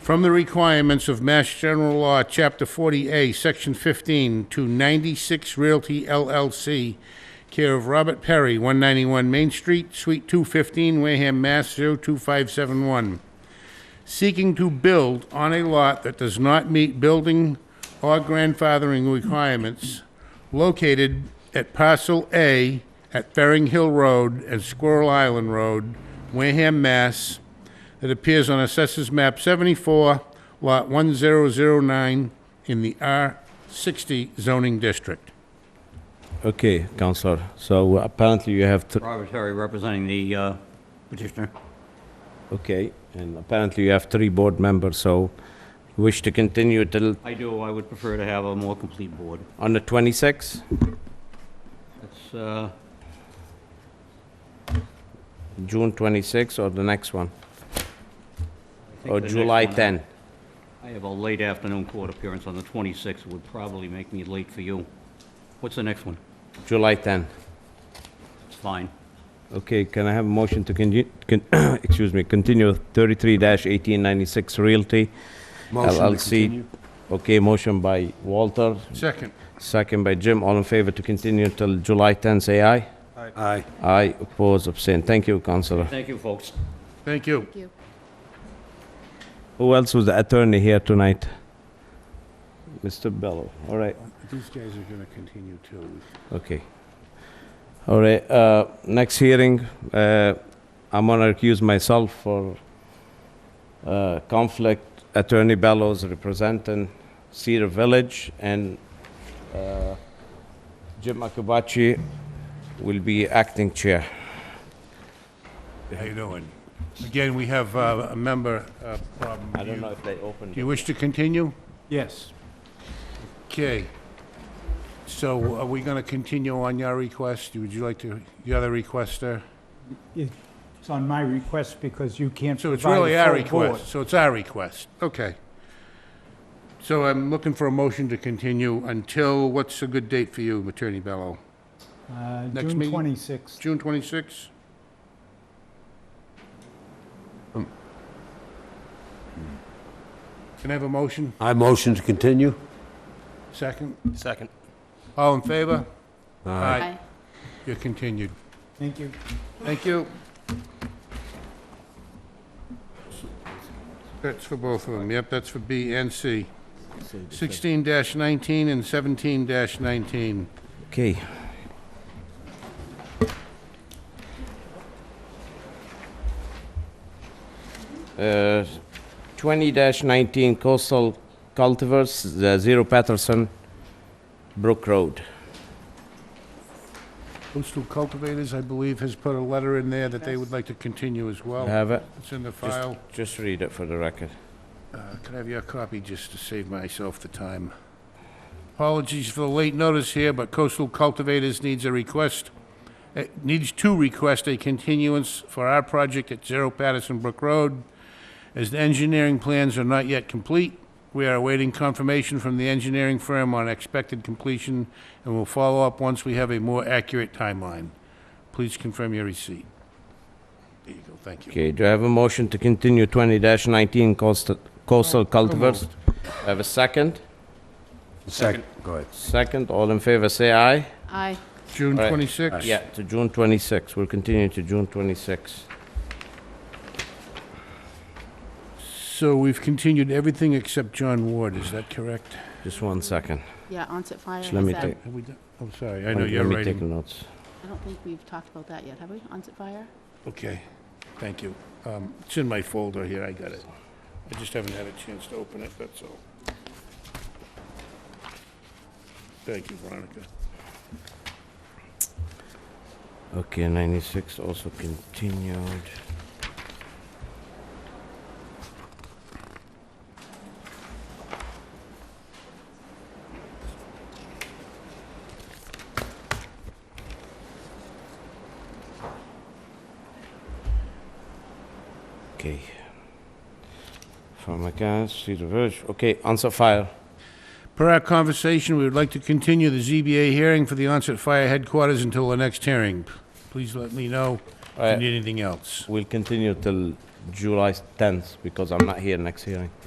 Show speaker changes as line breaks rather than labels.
from the requirements of Mass General Law, Chapter 40A, Section 15, to 96 Realty LLC, care of Robert Perry, 191 Main Street, Suite 215, Wareham, Mass. 02571, seeking to build on a lot that does not meet building or grandfathering requirements, located at Parcel A at Ferring Hill Road and Squirrel Island Road, Wareham, Mass., that appears on Assessors Map 74, Lot 1009, in the R60 zoning district.
Okay, Counselor, so apparently you have, th-
Robert Terry representing the uh, petitioner.
okay, and apparently you have three board members, so you wish to continue till,
I do, I would prefer to have a more complete board.
on the 26th?
That's, uh,
June 26th or the next one?
I think
Or
the next
Oh, July
one,
10?
I have a late afternoon court appearance on the 26th, would probably make me late for you. What's the next one?
July 10.
It's fine.
Okay, can I have a motion to continue, excuse me, continue 33-1896 Realty LLC? Okay, motion by Walter,
Second.
second by Jim, all in favor to continue till July 10, say aye?
Aye.
Aye, oppose, abstain. Thank you, Counselor.
Thank you, folks.
Thank you.
Who else was the attorney here tonight? Mr. Bello, all right,
These guys are gonna continue too.
okay. All right, uh, next hearing, uh, I'm gonna recuse myself for, uh, conflict. Attorney Bellows representing Cedar Village and, uh, Jim Akabachi will be acting chair.
How you doing? Again, we have uh, a member uh, problem.
I don't know if they opened
Do you wish to continue?
Yes.
Okay. So are we gonna continue on your request? Would you like to, the other requester?
It's on my request because you can't
So
provide a
it's really our
full board.
request, so it's our request, okay. So I'm looking for a motion to continue until, what's a good date for you, Attorney Bello?
Uh,
Next
June
meeting?
26th.
June 26? Hmm. Can I have a motion?
I motion to continue.
Second?
Second.
All in favor?
Aye.
You're continued.
Thank you.
Thank you. That's for both of them, yep, that's for B and C. 16-19 and 17-19.
Okay. Uh, 20-19 Coastal Cultivars, the Zero Patterson Brook Road.
Coastal Cultivators, I believe, has put a letter in there that they would like to continue as
You
well.
Have it?
It's in the file.
Just read it for the record.
Uh, Could I have your copy just to save myself the time? Apologies for the late notice here, but Coastal Cultivators needs a request, eh, needs to request a continuance for our project at Zero Patterson Brook Road. As the engineering plans are not yet complete, we are awaiting confirmation from the engineering firm on expected completion and will follow up once we have a more accurate timeline. Please confirm your receipt. There you go, thank you.
Okay, do I have a motion to continue 20-19 Coastal Coastal Cultivars? I Have a second?
Second. Go ahead.
Second, all in favor, say aye.
Aye.
June
All right.
26?
Yeah, to June 26. We'll continue to June 26.
So we've continued everything except John Ward, is that correct?
Just one second.
Yeah, onset fire.
Just let me
is that-
take-
Have we done, I'm sorry, I know you're
Let me take
writing.
notes.
I don't think we've talked about that yet, have we? Onset fire?
Okay, thank you. Um, It's in my folder here, I got it. I just haven't had a chance to open it, that's all. Thank you, Veronica.
Okay, 96 also continued. Okay. From accounts, Cedar Village. Okay, answer file.
Per our conversation, we would like to continue the ZBA hearing for the onset fire headquarters until the next hearing. Please let me know if
Alright.
you need anything else.
We'll continue till July 10th because I'm not here next hearing.